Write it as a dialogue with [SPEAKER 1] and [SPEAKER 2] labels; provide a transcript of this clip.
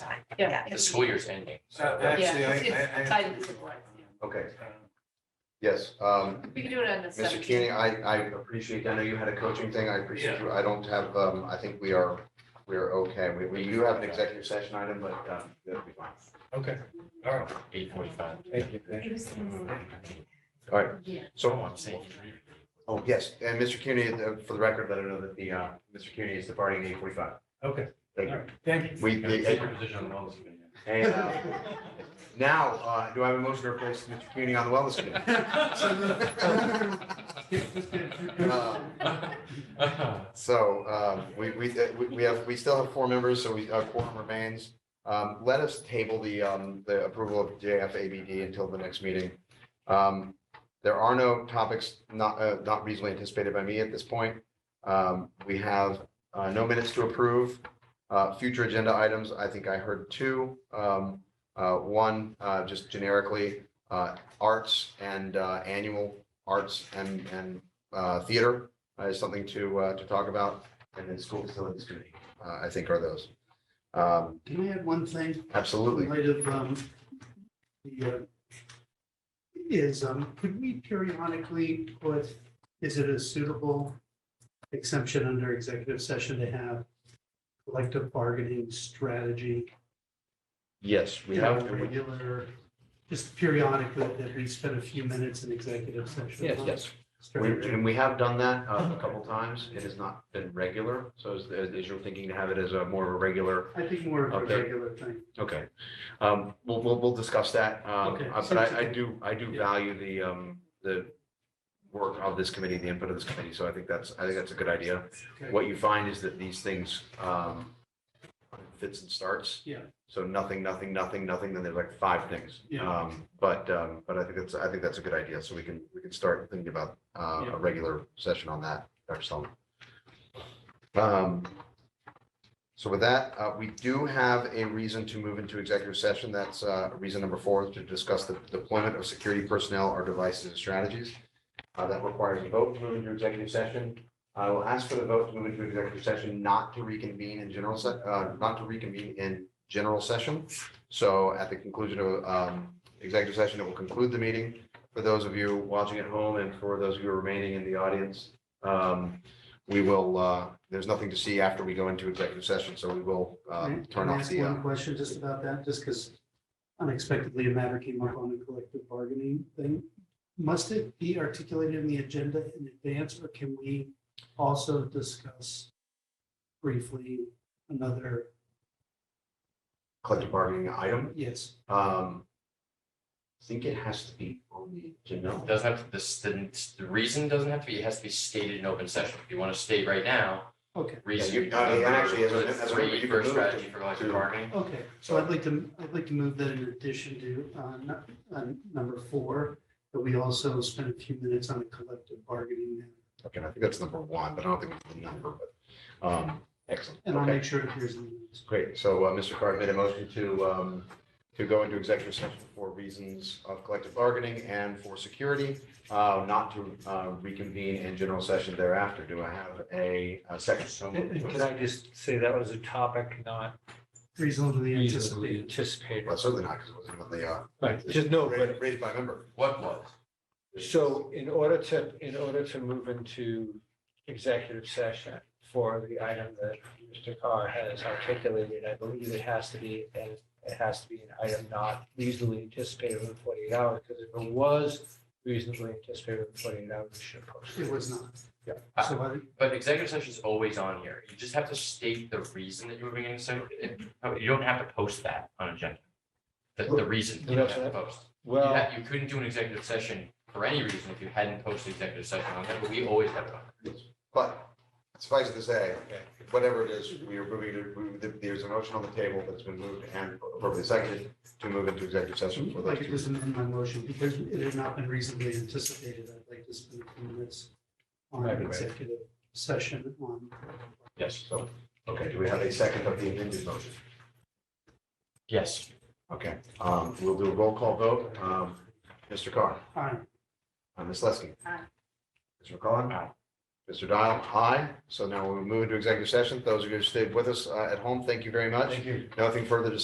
[SPEAKER 1] Yeah.
[SPEAKER 2] Yeah.
[SPEAKER 3] The school year's ending.
[SPEAKER 4] So
[SPEAKER 3] so-
[SPEAKER 4] actually, I,
[SPEAKER 1] it's-
[SPEAKER 4] I- I-
[SPEAKER 1] it's tied to the board,
[SPEAKER 5] Okay, yes, um,
[SPEAKER 1] We can do it on the
[SPEAKER 5] Mr.
[SPEAKER 1] seventeenth.
[SPEAKER 5] Keating, I, I appreciate, I know you had a coaching thing, I appreciate you, I don't have, um, I think we are, we are okay, we, we do have an executive session item, but, um, that'll be fine.
[SPEAKER 4] Okay, all right,
[SPEAKER 3] Eight forty-five.
[SPEAKER 4] thank you. thank you.
[SPEAKER 5] All right,
[SPEAKER 1] Yeah.
[SPEAKER 3] So
[SPEAKER 5] so
[SPEAKER 3] I'm saying.
[SPEAKER 5] Oh, yes, and Mr. Kearney, uh, for the record, let her know that the, uh, Mr. Kearney is departing at eight forty-five.
[SPEAKER 4] Okay, all
[SPEAKER 5] Thank you.
[SPEAKER 4] right, thank you.
[SPEAKER 5] We,
[SPEAKER 3] Take your
[SPEAKER 5] the-
[SPEAKER 3] position on those.
[SPEAKER 5] and, uh, now, uh, do I have a motion to replace Mr. Kearney on the wellness committee? Um, So, um, we, we, uh, we- we have, we still have four members, so we, our quorum remains. Um, let us table the, um, the approval of JFABD until the next meeting. Um, there are no topics not, uh, not reasonably anticipated by me at this point. Um, we have, uh, no minutes to approve. Uh, future agenda items, I think I heard two. Um, uh, one, uh, just generically, uh, arts and, uh, annual arts and, and, uh, theater uh, is something to, uh, to talk about. And then school facilities committee, uh, I think are those. Um,
[SPEAKER 6] Can I add one thing?
[SPEAKER 5] absolutely.
[SPEAKER 6] In light of, um, the, uh, is, um, could we periodically put, is it a suitable exemption under executive session to have collective bargaining strategy?
[SPEAKER 5] Yes, we
[SPEAKER 6] you know,
[SPEAKER 5] have.
[SPEAKER 6] Regular, just periodically that we spend a few minutes in executive session.
[SPEAKER 5] Yes,
[SPEAKER 6] on
[SPEAKER 5] yes. We,
[SPEAKER 6] strategy.
[SPEAKER 5] and we have done that uh, a couple times. It has not been regular. So is, is your thinking to have it as a more of a regular?
[SPEAKER 6] I think more of
[SPEAKER 5] Okay.
[SPEAKER 6] a regular thing.
[SPEAKER 5] Okay. Um, we'll, we'll, we'll discuss that. Um,
[SPEAKER 6] Okay.
[SPEAKER 5] uh, but I, I do, I do
[SPEAKER 6] Yeah.
[SPEAKER 5] value the, um, the work of this committee, the input of this committee. So I think that's, I think that's a good idea.
[SPEAKER 6] Okay.
[SPEAKER 5] What you find is that these things, um, fits and starts.
[SPEAKER 6] Yeah.
[SPEAKER 5] So nothing, nothing, nothing, nothing, then there's like five things.
[SPEAKER 6] Yeah.
[SPEAKER 5] Um, but, um, but I think that's, I think that's a good idea. So we can, we can start thinking about, uh,
[SPEAKER 6] Yeah.
[SPEAKER 5] a regular session on that, Dr. Sullivan. Um, so with that, uh, we do have a reason to move into executive session. That's, uh, reason number four, to discuss the deployment of security personnel or devices and strategies. Uh, that requires a vote to move into executive session. I will ask for the vote to move into executive session, not to reconvene in general se- uh, not to reconvene in general session. So at the conclusion of, um, executive session, it will conclude the meeting. For those of you watching at home and for those of you remaining in the audience, um, we will, uh, there's nothing to see after we go into executive session, so we will, um,
[SPEAKER 6] Can
[SPEAKER 5] turn
[SPEAKER 6] I
[SPEAKER 5] off
[SPEAKER 6] ask
[SPEAKER 5] the, uh,
[SPEAKER 6] One question just about that, just because unexpectedly a matter came up on the collective bargaining thing. Must it be articulated in the agenda in advance, or can we also discuss briefly another,
[SPEAKER 5] collective bargaining item.
[SPEAKER 6] yes,
[SPEAKER 5] Um, I think it has to be on the agenda.
[SPEAKER 3] Doesn't have, to- this, the, the reason doesn't have to be, it has to be stated in open session. If you want to state right now,
[SPEAKER 6] okay,
[SPEAKER 3] reason.
[SPEAKER 5] you- uh, and actually, as a- as a member, you
[SPEAKER 3] Three
[SPEAKER 5] can
[SPEAKER 3] for a
[SPEAKER 5] move
[SPEAKER 3] strategy
[SPEAKER 5] to-
[SPEAKER 3] for collective
[SPEAKER 5] to-
[SPEAKER 3] bargaining.
[SPEAKER 6] okay. So I'd like to, I'd like to move that in addition to, uh, nu- uh, number four, that we also spend a few minutes on a collective bargaining. matter.
[SPEAKER 5] Okay, I think that's number one, but I don't think it's the number, but, um, excellent.
[SPEAKER 6] And I'll
[SPEAKER 5] Okay.
[SPEAKER 6] make sure it appears in the minutes.
[SPEAKER 5] Great. So uh, Mr. Card made a motion to, um, to go into executive session for reasons of collective bargaining and for security, uh, not to uh, reconvene in general session thereafter. Do I have a a second?
[SPEAKER 3] So
[SPEAKER 7] And- and Can I just say that was a topic not
[SPEAKER 6] Reasonably
[SPEAKER 7] reasonably
[SPEAKER 6] anticipated.
[SPEAKER 7] anticipated?
[SPEAKER 5] Well, certainly not, because it wasn't even the, uh,
[SPEAKER 7] Right, just no,
[SPEAKER 5] ra-
[SPEAKER 7] but,
[SPEAKER 5] raised by a member.
[SPEAKER 3] what was?
[SPEAKER 7] so in order to, in order to move into executive session for the item that Mr. Carr has articulated, I believe it has to be, and it has to be an item not reasonably anticipated within forty-eight hours, because if it was reasonably anticipated within forty-eight hours, we should post
[SPEAKER 6] It
[SPEAKER 7] it.
[SPEAKER 6] was not.
[SPEAKER 5] Yeah.
[SPEAKER 6] So I,
[SPEAKER 3] But executive session is always on here. You just have to state the reason that you're moving into, so you don't have to post that on agenda. The, the reason you don't have to post. You
[SPEAKER 7] Well,
[SPEAKER 3] had- you couldn't do an executive session for any reason if you hadn't posted executive session on that, but we always have it on.
[SPEAKER 5] But suffice it to say, whatever it is, we are moving to, we- there's a motion on the table that's been moved and appropriately seconded to move into executive session for
[SPEAKER 6] If I
[SPEAKER 5] those
[SPEAKER 6] could
[SPEAKER 5] two.
[SPEAKER 6] just amend my motion, because it had not been reasonably anticipated, I'd like to spend a few minutes on
[SPEAKER 5] Right, right.
[SPEAKER 6] an executive session on.
[SPEAKER 3] Yes.
[SPEAKER 5] So, okay, do we have a second of the amended motion?
[SPEAKER 3] Yes.
[SPEAKER 5] Okay, um, we'll do a roll call vote. Um, Mr. Carr,
[SPEAKER 6] Aye.
[SPEAKER 5] uh, Ms. Leskey.
[SPEAKER 1] Aye.
[SPEAKER 5] Mr. McCollum.
[SPEAKER 3] Aye.
[SPEAKER 5] Mr. Dial, aye. So now we'll move into executive session. Those of you who stayed with us uh, at home, thank you very much.
[SPEAKER 7] thank you.
[SPEAKER 5] Nothing further to